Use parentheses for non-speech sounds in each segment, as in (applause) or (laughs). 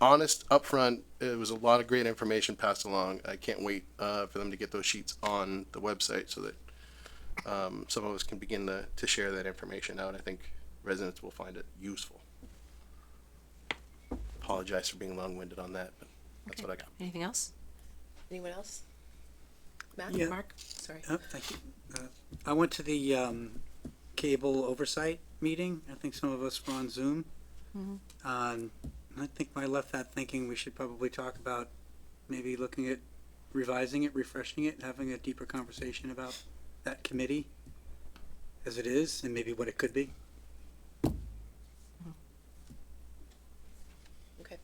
honest, upfront. It was a lot of great information passed along. I can't wait uh, for them to get those sheets on the website so that um, some of us can begin to, to share that information out. I think residents will find it useful. Apologize for being long-winded on that, but that's what I got. Anything else? Anyone else? Matt? Yeah. Mark? Sorry. Oh, thank you. Uh, I went to the um, cable oversight meeting. I think some of us were on Zoom. Um, and I think I left that thinking we should probably talk about maybe looking at revising it, refreshing it, having a deeper conversation about that committee as it is and maybe what it could be. Okay.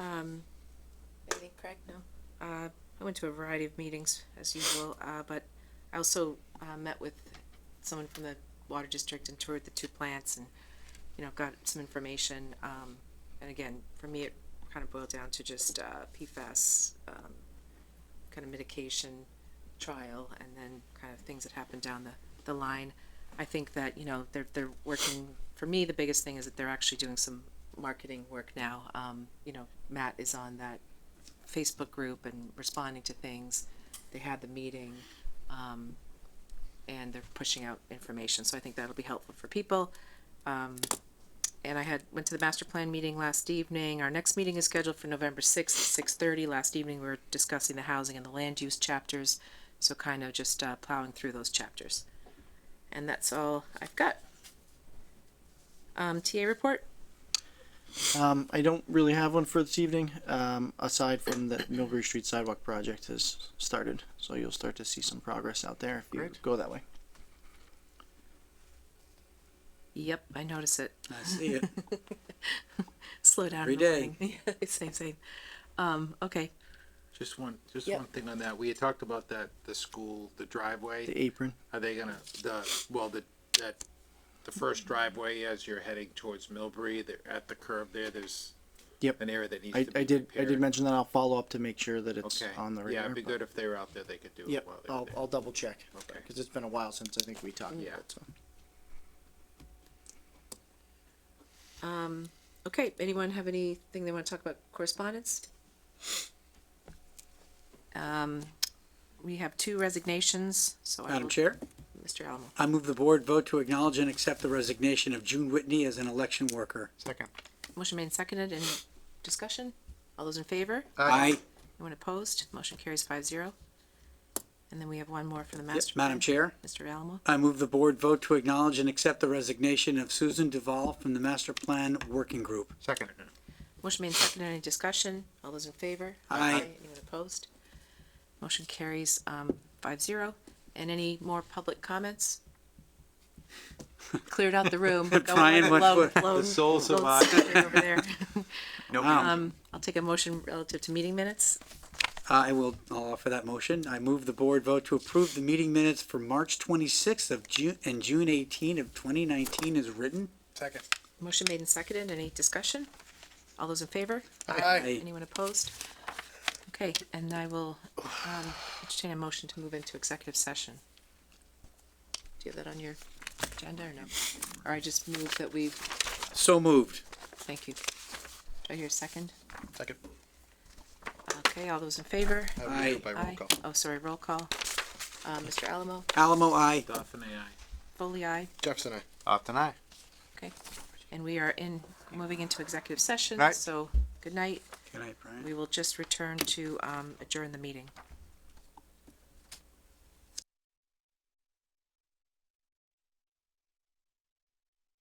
Um, Anything, Craig? No? uh, I went to a variety of meetings as usual, uh, but I also uh, met with someone from the water district and toured the two plants and you know got some information. Um, and again, for me, it kind of boiled down to just uh, PFAS um, kind of mitigation trial, and then kind of things that happened down the the line. I think that you know they're they're working. For me, the biggest thing is that they're actually doing some marketing work now. Um, you know, Matt is on that Facebook group and responding to things. They had the meeting, um, and they're pushing out information. So I think that'll be helpful for people. Um, and I had went to the master plan meeting last evening. Our next meeting is scheduled for November sixth at six thirty. Last evening we were discussing the housing and the land use chapters, so kind of just uh, plowing through those chapters. And that's all I've got. Um, TA report. Um, I don't really have one for this evening, um, aside from that Millbury Street sidewalk project has started, so you'll start to see some progress out there if you Great. go that way. Yep, I notice it. I see it. Slow down. Every (laughs) everything. same, same. Um, okay. Just one, just Yep. one thing on that. We had talked about that, the school, the driveway. The apron. Are they gonna, the, well, the, that, the first driveway as you're heading towards Millbury, there, at the curb there, there's Yep. an area that needs I, to be I did. I did repaired. mention that I'll follow up to make sure that it's Okay. on the radar. Yeah, it'd be but- good if they were out there, they could do it Yep. while they were I'll, there. I'll double check. Okay. Because it's been a while since I think we talked. Yeah. about it, so. Okay, anyone have anything they want to talk about correspondence? Um, we have two resignations, so I Madam will- Chair? Mr. Alamo. I move the board vote to acknowledge and accept the resignation of June Whitney as an election worker. Motion made and seconded, any discussion? All those in favor? Aye. Anyone opposed? Motion carries five zero. And then we have one more for the Yep, master. Madam plan. Chair? Mr. Alamo, I move the board vote to acknowledge and accept the resignation of Susan Duval from the Master Plan Working Group. Second. motion made and seconded, any discussion? All those in favor? Aye. Anyone opposed? Motion carries, um, five zero. And any more public comments? Cleared out the room. (laughs) but no one Brian went lone- for- lone- soul lone survivor over (laughs) there. Wow. Um, I'll take a motion relative to meeting minutes. I will, I'll offer that motion. I move the board vote to approve the meeting minutes for March twenty-sixth of June and June eighteen of twenty nineteen is written. Second. Motion made and seconded. Any discussion? All those in favor? Aye. Anyone opposed? Okay, and I will, um, entertain a motion to move into executive session. Do you have that on your agenda or no? Or I just move that we, So moved. thank you. Do I hear a second? Second. Okay, all those in favor? I would do Aye. by roll Aye. call. Oh, sorry, roll call. Uh, Mr. Alamo, Alamo, aye. Duff and I. Foley, aye. Jefferson, I. Opt and I. Okay, and we are in, moving into executive session, Night. so good night. Good night, Brian. We will just return to um, adjourn the meeting.